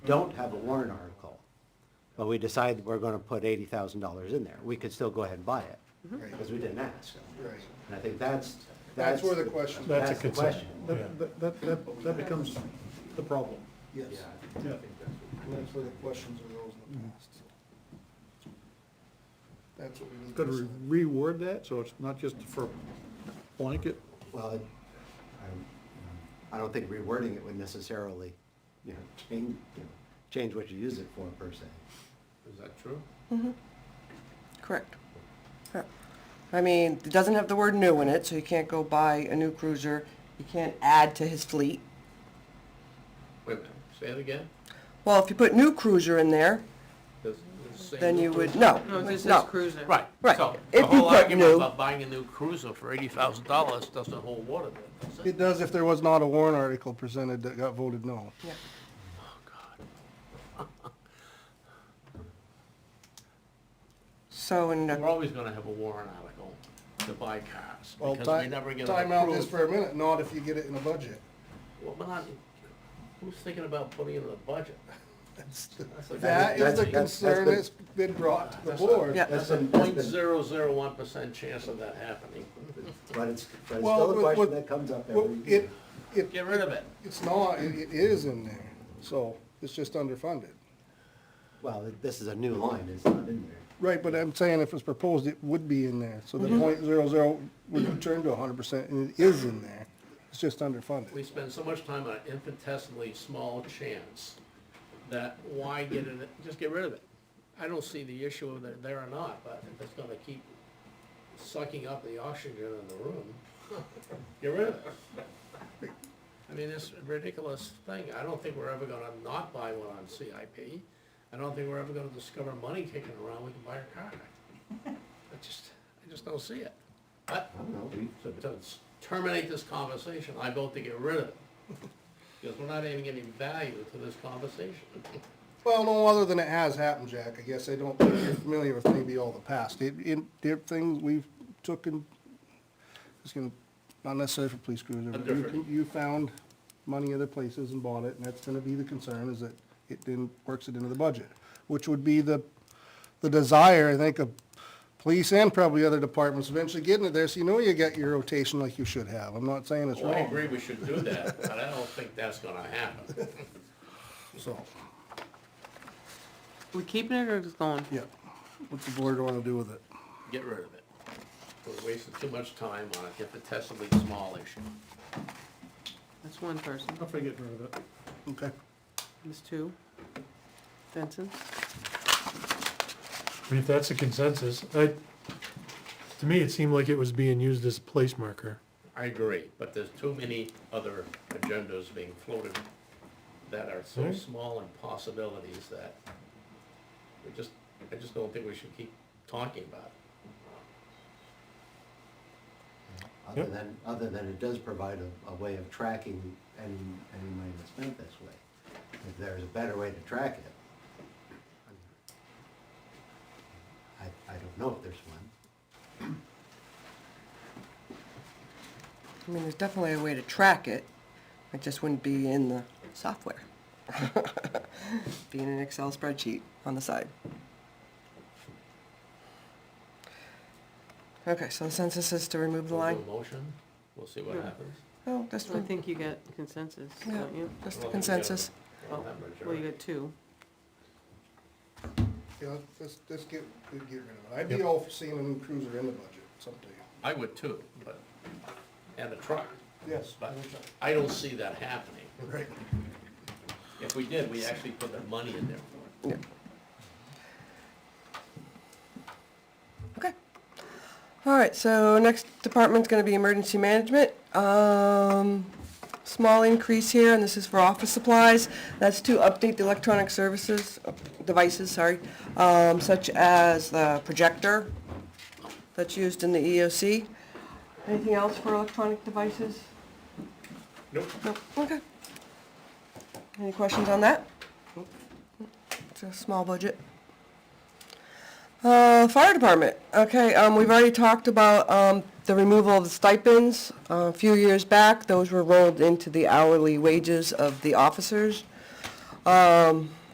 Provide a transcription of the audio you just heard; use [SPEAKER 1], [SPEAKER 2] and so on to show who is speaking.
[SPEAKER 1] don't have a warrant article, but we decide we're gonna put eighty thousand dollars in there, we could still go ahead and buy it,
[SPEAKER 2] Right.
[SPEAKER 1] because we didn't ask.
[SPEAKER 2] Right.
[SPEAKER 1] And I think that's, that's.
[SPEAKER 2] That's where the question-
[SPEAKER 3] That's a
[SPEAKER 1] That's the
[SPEAKER 3] concern.
[SPEAKER 1] question.
[SPEAKER 3] Yeah.
[SPEAKER 4] That, that- that, that, that becomes the problem.
[SPEAKER 2] Yes,
[SPEAKER 1] Yeah.
[SPEAKER 4] Yeah.
[SPEAKER 2] and that's where the questions arose in the past. so. That's what we need to
[SPEAKER 4] Got to
[SPEAKER 2] decide.
[SPEAKER 4] reword that, so it's not just for blanket.
[SPEAKER 1] Well, it- I'm- I don't think rewording it would necessarily, you know, change, you know, change what you use it for per se.
[SPEAKER 5] Is that true?
[SPEAKER 6] Correct. Correct. I mean, it doesn't have the word new in it, so you can't go buy a new cruiser. You can't add to his fleet.
[SPEAKER 5] Wait a minute, say it again?
[SPEAKER 6] Well, if you put new cruiser in there,
[SPEAKER 5] Does- does it say
[SPEAKER 6] then
[SPEAKER 5] new
[SPEAKER 6] you would,
[SPEAKER 5] cruiser?
[SPEAKER 6] no,
[SPEAKER 7] No, this is
[SPEAKER 6] no.
[SPEAKER 7] cruiser.
[SPEAKER 5] Right,
[SPEAKER 6] Right,
[SPEAKER 5] so,
[SPEAKER 6] if
[SPEAKER 5] the
[SPEAKER 6] you
[SPEAKER 5] whole
[SPEAKER 6] put
[SPEAKER 5] argument
[SPEAKER 6] new-
[SPEAKER 5] about buying a new cruiser for eighty thousand dollars doesn't hold water then, does it?
[SPEAKER 2] It does if there was not a warrant article presented that got voted no.
[SPEAKER 6] So, and,
[SPEAKER 5] We're
[SPEAKER 6] uh,
[SPEAKER 5] always gonna have a warrant article to buy cars,
[SPEAKER 2] Well,
[SPEAKER 5] because we
[SPEAKER 2] ti-
[SPEAKER 5] never get
[SPEAKER 2] Time
[SPEAKER 5] them
[SPEAKER 2] out just
[SPEAKER 5] approved.
[SPEAKER 2] for a minute, not if you get it in a budget.
[SPEAKER 5] Well, we're not- Who's thinking about putting it in the budget? a-
[SPEAKER 2] That is
[SPEAKER 1] That's-
[SPEAKER 2] the
[SPEAKER 1] that's- that's
[SPEAKER 2] concern
[SPEAKER 1] been-
[SPEAKER 2] that's been brought to the
[SPEAKER 5] That's a-
[SPEAKER 2] board.
[SPEAKER 6] Yeah.
[SPEAKER 1] That's
[SPEAKER 5] That's a
[SPEAKER 1] been- that's
[SPEAKER 5] point
[SPEAKER 1] been-
[SPEAKER 5] zero zero one percent chance of that happening.
[SPEAKER 1] But it's, but it's
[SPEAKER 2] Well,
[SPEAKER 1] still a
[SPEAKER 2] with-
[SPEAKER 1] question
[SPEAKER 2] with-
[SPEAKER 1] that comes up
[SPEAKER 2] Well,
[SPEAKER 1] every
[SPEAKER 2] it,
[SPEAKER 1] year.
[SPEAKER 2] it,
[SPEAKER 5] Get rid of it.
[SPEAKER 2] it's not, it, it is in there, so it's just underfunded.
[SPEAKER 1] Well, it- this is a new line, it's not in there.
[SPEAKER 2] Right, but I'm saying if it's proposed, it would be in there, so the point zero zero would return to hundred percent, and it is in there, it's just underfunded.
[SPEAKER 5] We spend so much time on an infinitesimally small chance that why get it, just get rid of it. I don't see the issue of that there or not, but if it's gonna keep sucking up the oxygen in the room, get rid of it. I mean, it's a ridiculous thing. I don't think we're ever gonna not buy one on CIP. I don't think we're ever gonna discover money kicking around, we can buy a car. I just, I just don't see it. But
[SPEAKER 1] I don't know, we-
[SPEAKER 5] to- to terminate this conversation, I vote to get rid of it. Because we're not adding any value to this conversation.
[SPEAKER 2] Well, no, other than it has happened, Jack, I guess I don't, think you're familiar with maybe all the past, it, it, there are things we've took and, it's gonna, not necessarily for police cruiser, but you,
[SPEAKER 5] Different.
[SPEAKER 2] can- you found money other places and bought it, and that's gonna be the concern, is that it didn't, works it into the budget, which would be the, the desire, I think, of police and probably other departments eventually getting it there, so you know you got your rotation like you should have, I'm not saying it's
[SPEAKER 5] Well, Oh, I
[SPEAKER 2] wrong,
[SPEAKER 5] agree we should do that, but I don't think that's gonna happen.
[SPEAKER 2] so,
[SPEAKER 7] We keeping it or just going?
[SPEAKER 2] yeah, what's the board wanna do with it?
[SPEAKER 5] Get rid of it. We're wasting too much time on an infinitesimally small issue.
[SPEAKER 7] That's one person.
[SPEAKER 4] I'll forget rid of it.
[SPEAKER 2] Okay.
[SPEAKER 7] There's two. Benson.
[SPEAKER 3] I mean, if that's a consensus, I, to me, it seemed like it was being used as a place marker.
[SPEAKER 5] I agree, but there's too many other agendas being floated that are so
[SPEAKER 3] Hmm.
[SPEAKER 5] small in possibilities that we just, I just don't think we should keep talking about it.
[SPEAKER 1] Other
[SPEAKER 3] Yep.
[SPEAKER 1] than, other than it does provide a, a way of tracking any, any money that's spent this way. If there's a better way to track it. I, I don't know if there's one.
[SPEAKER 6] I mean, there's definitely a way to track it. It just wouldn't be in the software. Be in an Excel spreadsheet on the side. Okay, so the census is to remove the
[SPEAKER 5] We'll do
[SPEAKER 6] line?
[SPEAKER 5] a Motion, we'll see what
[SPEAKER 7] Yeah.
[SPEAKER 5] happens.
[SPEAKER 6] Oh, just,
[SPEAKER 7] I
[SPEAKER 6] re-
[SPEAKER 7] think you got consensus,
[SPEAKER 6] yeah,
[SPEAKER 7] don't you?
[SPEAKER 6] just the
[SPEAKER 5] Well,
[SPEAKER 6] consensus.
[SPEAKER 5] Well, that much,
[SPEAKER 7] Well, you
[SPEAKER 5] right.
[SPEAKER 7] got two.
[SPEAKER 2] Yeah, let's- let's, let's get, get rid of it. I'd be all for seeing a new cruiser in the budget someday.
[SPEAKER 5] I would too, but, and a truck,
[SPEAKER 2] Yes.
[SPEAKER 5] but I don't see that happening.
[SPEAKER 2] Right.
[SPEAKER 5] If we did, we actually put the money in there for it.
[SPEAKER 6] Okay. All right, so next department's gonna be emergency management. Um, small increase here, and this is for office supplies. That's to update the electronic services, uh, devices, sorry, um, such as the projector that's used in the EOC. Anything else for electronic devices?
[SPEAKER 5] Nope.
[SPEAKER 6] Nope, okay. Any questions on that? It's a small budget. Uh, fire department, okay, um, we've already talked about, um, the removal of the stipends, uh, a few years back, those were rolled into the hourly wages of the officers. Um,